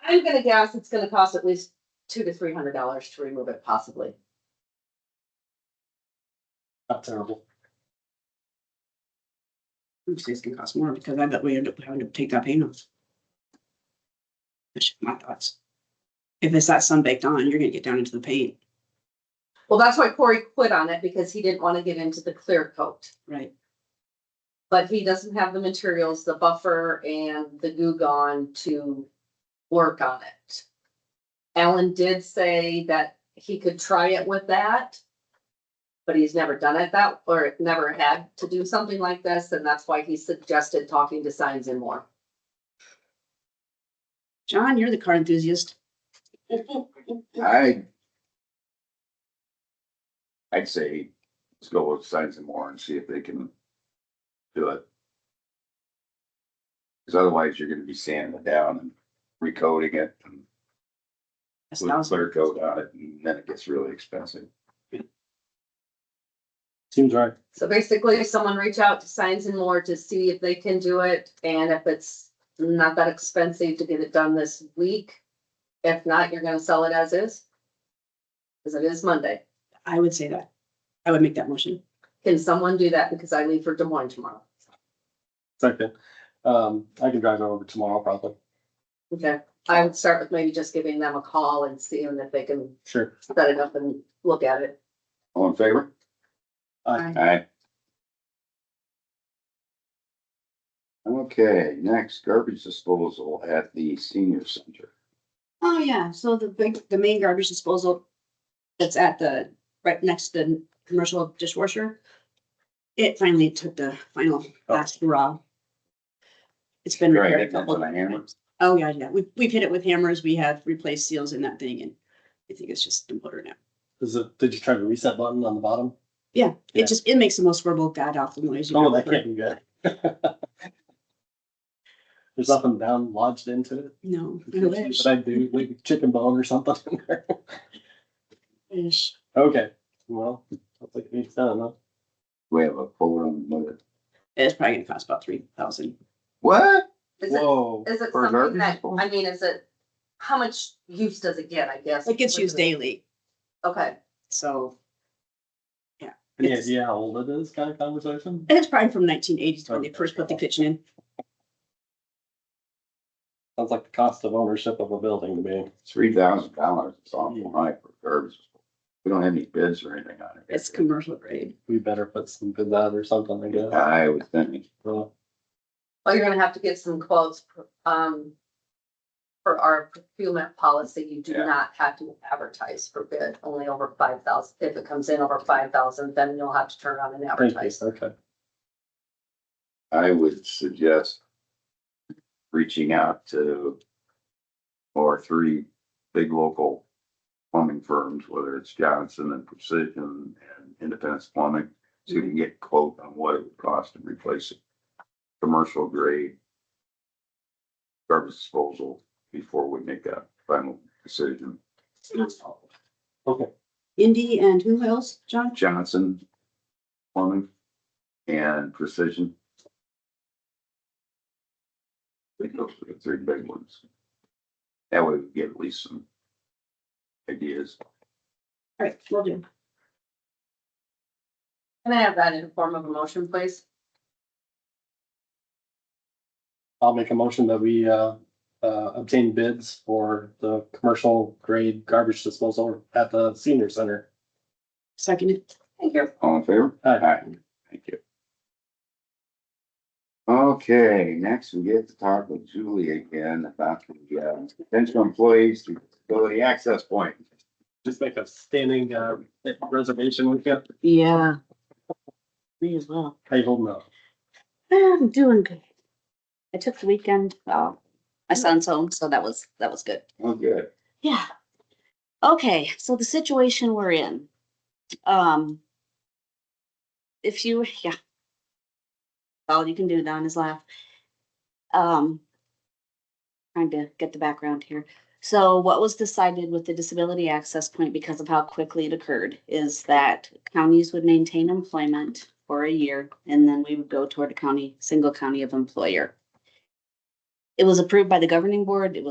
I'm gonna guess it's gonna cost at least two to three hundred dollars to remove it possibly. Not terrible. I'm saying it's gonna cost more because I bet we end up having to take that paint off. That's just my thoughts. If it's that sun baked on, you're gonna get down into the paint, Well, that's why Corey quit on it because he didn't wanna get into the clear coat. right? But he doesn't have the materials, the buffer and the goo gone to work on it. Alan did say that he could try it with that. But he's never done it that, or never had to do something like this, and that's why he suggested talking to Signs and More. John, you're the car enthusiast. I. I'd say, let's go with Signs and More and see if they can do it. Cause otherwise you're gonna be sanding it down and recoding it and That's with thousand. clear coat on it, and then it gets really expensive. Seems right. So basically, someone reach out to Signs and More to see if they can do it, and if it's not that expensive to get it done this week. If not, you're gonna sell it as is. Cause it is Monday. I would say that. I would make that motion. Can someone do that? Because I leave for Des Moines tomorrow. Second, um, I can drive over tomorrow probably. Okay, I would start with maybe just giving them a call and seeing if they can Sure. set it up and look at it. All in favor? Aye. Aye. Okay, next garbage disposal at the senior center. Oh, yeah, so the big, the main garbage disposal that's at the, right next to the commercial dishwasher. It finally took the final Oh. last hurrah. It's been Right, repaired a it comes couple with a hammer. times. Oh, yeah, yeah, we, we've hit it with hammers, we have replaced seals in that thing and I think it's just the motor now. Is it, did you try the reset button on the bottom? Yeah, Yeah. it just, it makes the most horrible god awful noise. you've Oh, ever that heard. can't be good. There's nothing down lodged into it. No, I But wish, I do, like a chicken bone or something in there. wish. Okay, well, looks like it's done, huh? We have a quote on the, It's probably gonna cost about three thousand. what? Is it, Whoa. is it For a something garbage that, disposal? I mean, is it, how much use does it get, I guess? It gets used daily, Okay, so. Any idea how old it is kind of conversation? And it's probably from nineteen eighties when they first put the kitchen in. Sounds like the cost of ownership of a building to me. Three thousand dollars, it's awful high for garbage. We don't have any bids or anything on it. It's commercial grade. We better put some bids out or something, I guess. I was thinking, Well, well, you're gonna have to get some quotes, um. For our procurement policy, you do Yeah. not have to advertise for bid, only over five thousand, if it comes in over five thousand, then you'll have to turn on and thank you, advertise. okay. I would suggest reaching out to or three big local plumbing firms, whether it's Johnson and Precision and Independence Plumbing, so you can get a quote on what it would cost to replace it. Commercial grade garbage disposal before we make that final decision. Okay. Indy and who else, John? Johnson Plumbing and Precision. I think those are the three big ones. That way we get at least some ideas. All right, will do. Can I have that in form of a motion, please? I'll make a motion that we uh, uh, obtain bids for the commercial grade garbage disposal at the senior center. Second it. Thank you. All in favor? Aye. Thank you. Okay, next we get to talk with Julie again about the uh, potential employees to disability access point. Just make a standing uh, reservation. We got, Yeah. Me as well. how you holding up? I'm doing good. I took the weekend, uh, my son's home, so that was, that was good. Oh, good. Yeah. Okay, so the situation we're in. Um. If you, yeah. All you can do, Don, is laugh. Um. Trying to get the background here. So what was decided with the disability access point because of how quickly it occurred is that counties would maintain employment for a year and then we would go toward a county, single county of employer. It was approved by the governing board. It was